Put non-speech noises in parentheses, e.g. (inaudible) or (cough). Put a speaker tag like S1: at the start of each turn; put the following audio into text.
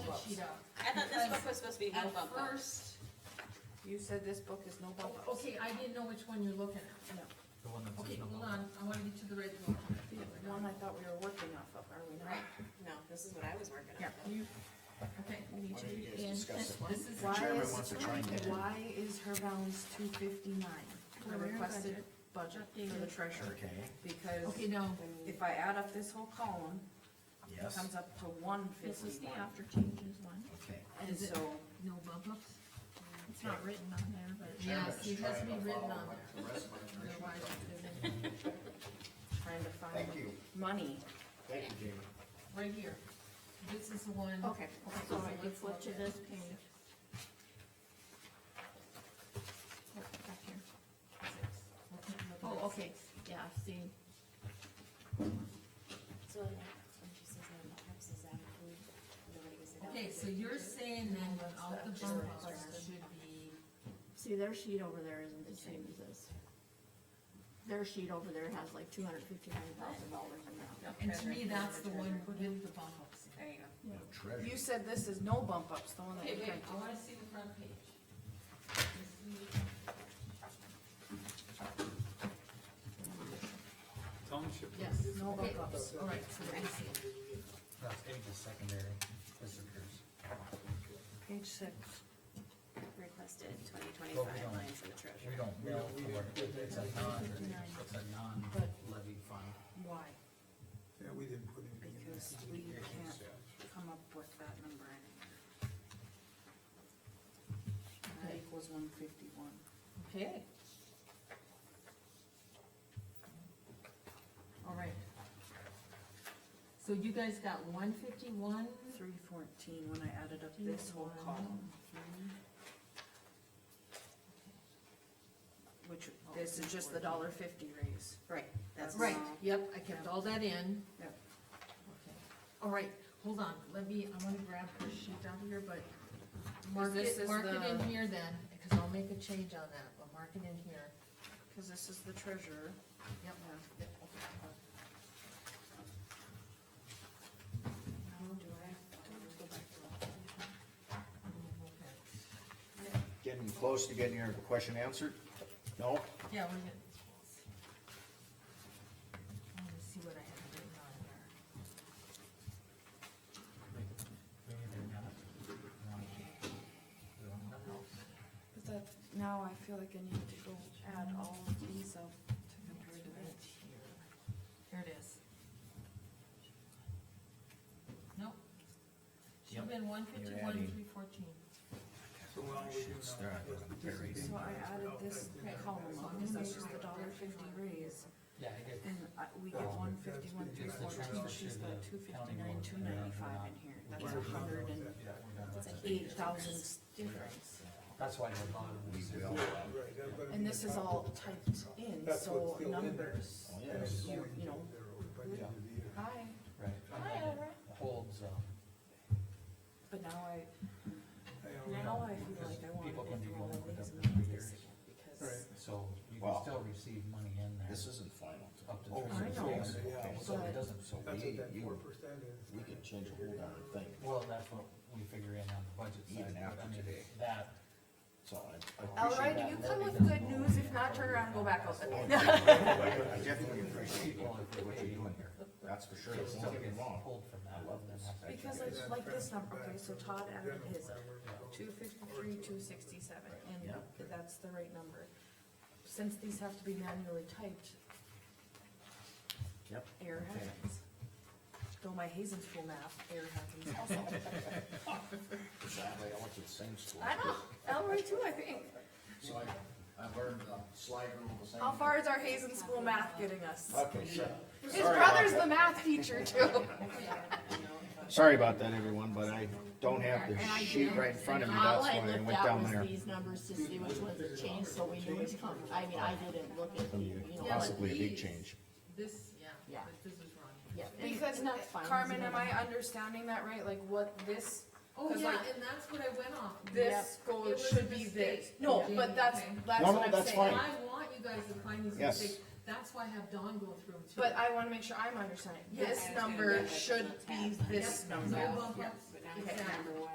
S1: I thought this book was supposed to be no
S2: At
S1: bump up.
S2: first,
S3: You said this book is no bump ups.
S2: okay, I didn't know which one you're looking at.
S4: The one that
S2: Okay,
S4: says no
S2: hold
S4: bump.
S2: on, I wanna get to the red one.
S3: The one I thought we were working off of, are we not?
S1: Right, no, this is what I was working on.
S3: Yeah.
S2: You, okay, we need
S5: Why
S2: to
S5: don't you
S2: be
S5: guys
S2: in, this
S5: discuss it?
S2: is.
S3: Why
S5: chairman
S3: is,
S5: wants to chime in.
S3: why is her balance two fifty-nine, the
S2: Career
S3: requested
S2: budget.
S3: budget for the
S2: Updated.
S3: treasurer?
S5: Okay,
S2: Okay,
S3: Because
S2: no,
S3: if I add up this whole column, it
S5: yes,
S3: comes up to one
S2: this is the
S3: fifty-one.
S2: after changes one,
S5: okay.
S3: And
S2: Is it-
S3: so,
S2: no bump ups. It's not written on there, but.
S5: Chairman
S2: Yes, it
S5: is
S2: has to
S5: trying
S2: be
S5: to
S2: written
S5: follow
S2: on
S5: what
S2: there,
S5: the rest of my commission
S2: otherwise
S5: does.
S2: it doesn't,
S3: trying to find
S5: Thank you,
S3: money.
S5: thank you, Jamie.
S2: right here. This is the one.
S3: Okay.
S2: Okay,
S6: So
S2: so
S6: if you
S2: let's
S6: flip
S2: look
S6: to
S2: at-
S6: this page.
S2: Oh, back here. Six. Let's look at
S6: Oh,
S2: this.
S6: okay, yeah, see,
S1: So, like, when she says, um, perhaps is that approved? Nobody was like,
S2: Okay,
S1: "Oh,
S2: so you're saying then without the bump ups, there should be,
S6: see their sheet over there isn't the same as this. Their sheet over there has like two hundred fifty-nine thousand dollars in that.
S2: and to me, that's the one with the bump ups.
S1: There you go.
S5: Treasure.
S3: You said this is no bump ups, the one that
S2: Okay,
S3: you
S2: wait,
S3: printed.
S2: I wanna see the front page.
S7: Township.
S2: Yes,
S3: No
S2: okay,
S3: bump ups.
S2: all right, so let me see.
S4: That's eight is secondary, visitors.
S3: Page six.
S1: Requested twenty twenty-five
S4: Well, we
S1: lines in the
S4: We
S1: treasury.
S4: don't bill for it, it's a non, it's a non-levy fund.
S3: Why?
S7: Yeah, we didn't put anything in
S3: Because
S7: there.
S3: we can't come up with that number anymore. That equals one fifty-one.
S2: Okay. All right. So you guys got one fifty-one,
S3: Three fourteen, when I added up this whole column, which, this is just the dollar fifty raise.
S1: Right, that's.
S2: right,
S1: all.
S2: yep, I kept all that in.
S3: Yep.
S2: Okay. All right, hold on, let me, I wanna grab this sheet down here, but mark
S3: this
S2: it,
S3: is
S2: mark it in
S3: the-
S2: here then, because I'll make a change on that, but mark it in here.
S3: Cause this is the treasurer.
S2: Yep, yep, okay.
S5: Getting close to getting your question answered? No?
S2: Yeah, we're gonna. I wanna see what I have written on there.
S4: Maybe they're not. We don't know.
S3: But that, now I feel like I need to go add all of these up to compare to that.
S2: Here it is. Nope. Should've been one fifty-one,
S5: adding.
S2: three fourteen.
S7: So while we do
S5: It's
S7: now-
S5: there, I'm buried.
S3: So I added this column up, cause that's just the dollar fifty raise,
S4: Yeah, I get,
S3: and I, we get one fifty-one, three fourteen, she's got two fifty-nine, two ninety-five in here, that's a hundred and
S4: yeah, we're done with that.
S3: eight thousand difference.
S4: That's why the bottom
S5: We
S4: is.
S5: will.
S7: Right, I'm gonna
S3: And
S7: be
S3: this is
S7: top.
S3: all typed in,
S7: That's
S3: so
S7: what's still in there.
S3: numbers,
S5: Oh,
S7: And
S3: you-
S5: yes.
S7: it's going
S3: you know.
S7: there by the end of the year.
S3: hi,
S4: Right. Holds, uh,
S3: but now I,
S7: I don't know.
S3: now I feel like I
S4: People
S3: wanna
S4: can
S3: go
S4: be
S3: through all
S4: going
S3: of
S4: with
S3: these
S4: them for
S3: and make
S4: years.
S3: this again, because
S7: Right.
S4: so you can
S5: Wow.
S4: still receive money in there.
S5: This isn't final.
S4: Up to
S5: Oh,
S3: I
S4: three
S3: know.
S4: years.
S7: Yeah.
S4: So it doesn't, so
S5: But-
S7: That's what
S5: You-
S7: that
S5: you-
S7: four percent is.
S5: We could change a whole other thing,
S4: well, that's what we figure in on the budget side.
S5: Even
S4: but I
S5: after
S4: mean,
S5: today.
S4: That,
S5: so I- I.
S3: All right,
S5: appreciate
S3: you come with good news, if not, turn around and go back out there.
S5: (laughs) that. I definitely appreciate what what you're doing here, that's for sure,
S4: it
S5: don't
S4: still
S5: get me
S4: gets
S5: wrong.
S4: pulled from that.
S5: I love
S4: and
S5: this.
S4: that's-
S3: Because it's like this number, okay, so Todd added his up, two fifty-three, two sixty-seven, and
S5: Yeah.
S3: that's the right number. Since these have to be manually typed,
S5: Yep.
S3: error happens. Though my Hazen school math, error
S5: (laughs)
S3: happens also.
S5: Sadly, I went to the same school.
S3: I know, Elroy too, I think.
S5: So I, I learned the slide rule the same.
S3: How far is our Hazen school math getting us?
S5: Okay, sure.
S3: His brother's the math
S5: (laughs)
S3: teacher too.
S5: Sorry about that, everyone, but I don't have the sheet right in front of me, that's
S6: All I
S5: why I
S6: looked
S5: went
S6: at
S5: down
S6: was
S5: there.
S6: these numbers to see which ones had changed, so we knew which come, I mean, I didn't look at the, you know.
S2: Yeah, like
S5: Possibly a big
S2: these.
S5: change.
S2: This, yeah,
S6: Yeah.
S2: but this is wrong.
S6: Yeah, and-
S3: Because
S6: and that's fine.
S3: Carmen, am I understanding that right? Like what this,
S2: Oh,
S3: 'Cause
S2: yeah,
S3: like-
S2: and that's what I went off.
S3: this
S2: It
S3: goes
S2: was
S3: should
S2: a
S3: be
S2: mistake.
S3: this. No,
S2: Okay.
S3: but that's,
S2: Okay.
S3: that's
S5: No, no,
S3: what I'm
S5: that's
S3: saying.
S2: And
S5: fine.
S2: I want you guys to find these
S5: Yes.
S2: mistakes, that's why I have Dawn go through them too.
S3: But I wanna make sure I'm understanding.
S2: Yes,
S3: This
S1: I was gonna
S3: number
S1: get, like,
S3: should
S1: the
S3: be
S1: tab.
S3: this
S2: Yep,
S3: number.
S2: no bump ups.
S1: But now it's
S2: Exactly.
S1: number one.